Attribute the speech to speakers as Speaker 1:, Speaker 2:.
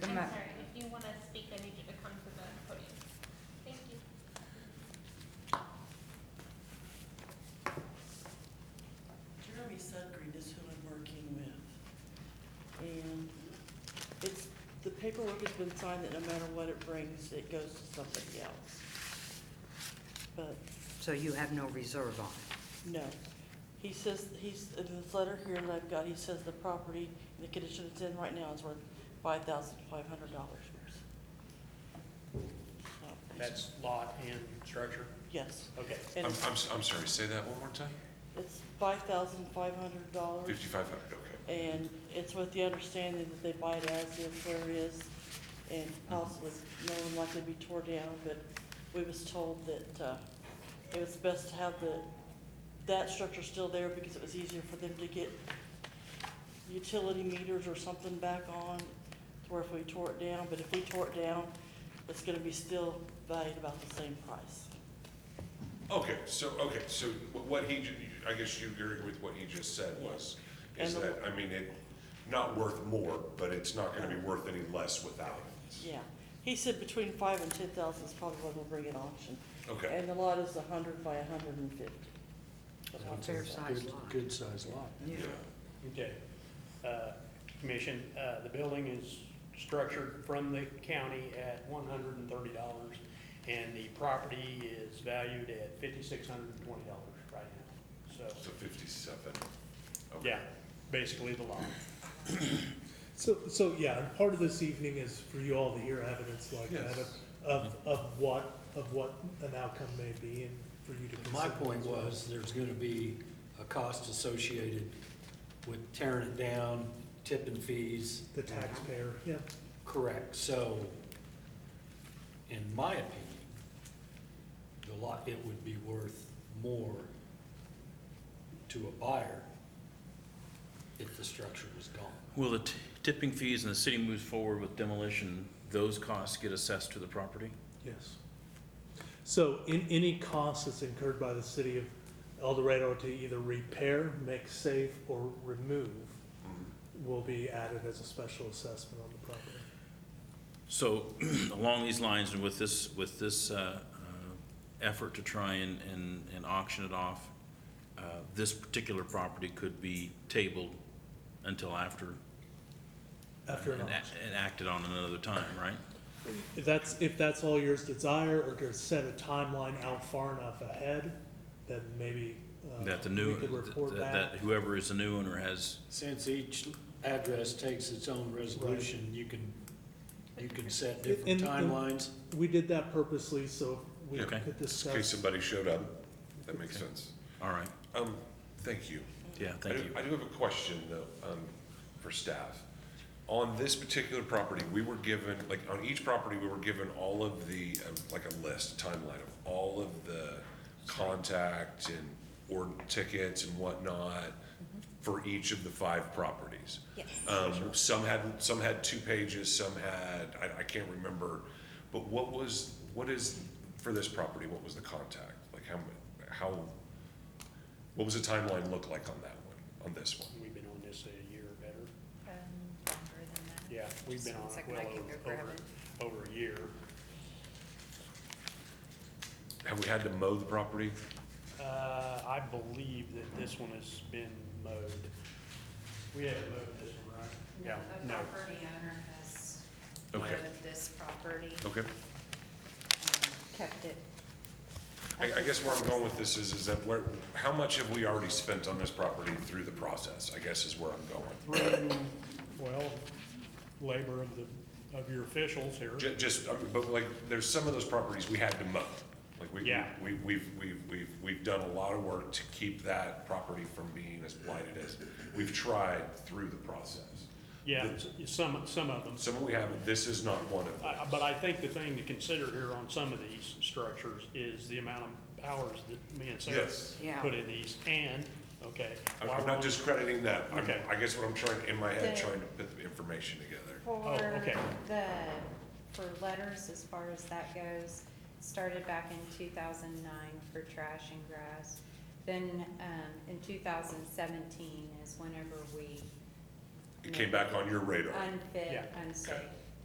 Speaker 1: not-
Speaker 2: Sorry, if you want to speak, I need you to come to the podium. Thank you.
Speaker 3: Jeremy Sudgreen is who I'm working with. And it's, the paperwork has been signed that no matter what it brings, it goes to somebody else. But,
Speaker 1: So you have no reserve on it?
Speaker 3: no. He says, he's, in this letter here that I've got, he says the property, the condition it's in right now is worth five thousand five hundred dollars.
Speaker 4: That's lot and structure?
Speaker 3: Yes,
Speaker 4: Okay.
Speaker 3: and
Speaker 5: I'm,
Speaker 3: it's,
Speaker 5: I'm, s- I'm sorry, say that one more time?
Speaker 3: it's five thousand five hundred dollars.
Speaker 5: Fifty-five hundred, okay.
Speaker 3: And it's with the understanding that they buy it as is where it is, and possibly no one likely to be tore down, but we was told that, uh, it was best to have the, that structure still there because it was easier for them to get utility meters or something back on, to where if we tore it down, but if we tore it down, it's gonna be still valued about the same price.
Speaker 5: Okay, so, okay, so wh- what he, ju- I guess you agree with what he just said was, is
Speaker 3: And the-
Speaker 5: that, I mean, it, not worth more, but it's not gonna be worth any less without it.
Speaker 3: Yeah, he said between five and ten thousand is probably what we'll bring in auction.
Speaker 5: Okay.
Speaker 3: And the lot is a hundred by a hundred and fifty. That's what
Speaker 1: Fair
Speaker 3: they said.
Speaker 1: size lot.
Speaker 6: Good size lot.
Speaker 1: Yeah.
Speaker 4: Okay. Uh, Commission, uh, the building is structured from the county at one hundred and thirty dollars, and the property is valued at fifty-six hundred and twenty dollars right now. So,
Speaker 5: So fifty-seven. Okay.
Speaker 4: yeah, basically the lot.
Speaker 7: So, so yeah, and part of this evening is for you all to hear evidence like
Speaker 5: Yes.
Speaker 7: that of, of, of what, of what an outcome may be and for you to
Speaker 6: My
Speaker 7: consider.
Speaker 6: point
Speaker 7: as well.
Speaker 6: was, there's gonna be a cost associated with tearing it down, tipping fees.
Speaker 7: The taxpayer, yeah.
Speaker 6: Correct, so, in my opinion, the lot, it would be worth more to a buyer if the structure was gone.
Speaker 8: Will the t- tipping fees and the city moves forward with demolition, those costs get assessed to the property?
Speaker 7: Yes. So in, any cost that's incurred by the city of El Dorado to either repair, make safe, or remove
Speaker 6: Mm-hmm.
Speaker 7: will be added as a special assessment on the property.
Speaker 8: So along these lines and with this, with this uh, uh, effort to try and, and and auction it off, uh, this particular property could be tabled until after.
Speaker 7: After an
Speaker 8: and a-
Speaker 7: auction.
Speaker 8: And acted on another time, right?
Speaker 7: If that's, if that's all yours desire, or to set a timeline out far enough ahead, then maybe, uh,
Speaker 8: That the new,
Speaker 7: we could report
Speaker 8: that
Speaker 7: back.
Speaker 8: that whoever is the new owner has,
Speaker 6: Since each address takes its own resolution, you can, you can set different
Speaker 7: And- and-
Speaker 6: timelines.
Speaker 7: We did that purposely, so we
Speaker 8: Okay.
Speaker 7: could
Speaker 5: Just in case
Speaker 7: discuss.
Speaker 5: somebody showed up, that makes
Speaker 8: Okay.
Speaker 5: sense.
Speaker 8: all right,
Speaker 5: Um, thank you.
Speaker 8: yeah,
Speaker 5: I
Speaker 8: thank
Speaker 5: do-
Speaker 8: you.
Speaker 5: I do have a question though, um, for staff. On this particular property, we were given, like, on each property, we were given all of the, um, like a list, a timeline of all of the contact and or tickets and whatnot for each of the five properties.
Speaker 1: Yes.
Speaker 5: Um, some had, some had two pages, some had, I, I can't remember. But what was, what is, for this property, what was the contact? Like how, mu- how, what was the timeline look like on that one, on this one?
Speaker 4: We've been on this a year or better.
Speaker 9: Um, longer than that.
Speaker 4: Yeah, we've been
Speaker 9: Just
Speaker 4: on
Speaker 9: one
Speaker 4: it
Speaker 9: second,
Speaker 4: well
Speaker 9: I can go
Speaker 4: over,
Speaker 9: grab it.
Speaker 4: over, over a year.
Speaker 5: Have we had to mow the property?
Speaker 4: Uh, I believe that this one has been mowed. We haven't mowed this one, right? Yeah,
Speaker 9: A
Speaker 4: no.
Speaker 9: property owner has
Speaker 5: Okay.
Speaker 9: lived this property,
Speaker 5: Okay.
Speaker 1: Kept it.
Speaker 5: I, I guess where I'm going with this is, is that where, how much have we already spent on this property through the process, I guess is where I'm going.
Speaker 4: through, well, labor of the, of your officials here.
Speaker 5: Ju- Just, I mean, but like, there's some of those properties we had to mow. Like, we,
Speaker 4: Yeah.
Speaker 5: we, we've, we've, we've, we've done a lot of work to keep that property from being as blighted as, we've tried through the process.
Speaker 4: Yeah, some, some of them.
Speaker 5: Some we haven't, this is not one of
Speaker 4: I-
Speaker 5: them.
Speaker 4: I- But I think the thing to consider here on some of these structures is the amount of hours that me and Sarah
Speaker 5: Yes.
Speaker 1: Yeah.
Speaker 4: put in these. And, okay.
Speaker 5: I'm-
Speaker 4: while
Speaker 5: I'm
Speaker 4: we're on-
Speaker 5: not discrediting that. I'm-
Speaker 4: Okay.
Speaker 5: I guess what I'm trying, in my head,
Speaker 9: The-
Speaker 5: trying to put the information together.
Speaker 9: For
Speaker 4: Oh, okay.
Speaker 9: the, for letters, as far as that goes, started back in two thousand nine for trash and grass. Then, um, in two thousand seventeen is whenever we
Speaker 5: It came back on your radar.
Speaker 9: unfit,
Speaker 4: Yeah.
Speaker 9: unsafe.
Speaker 5: Okay.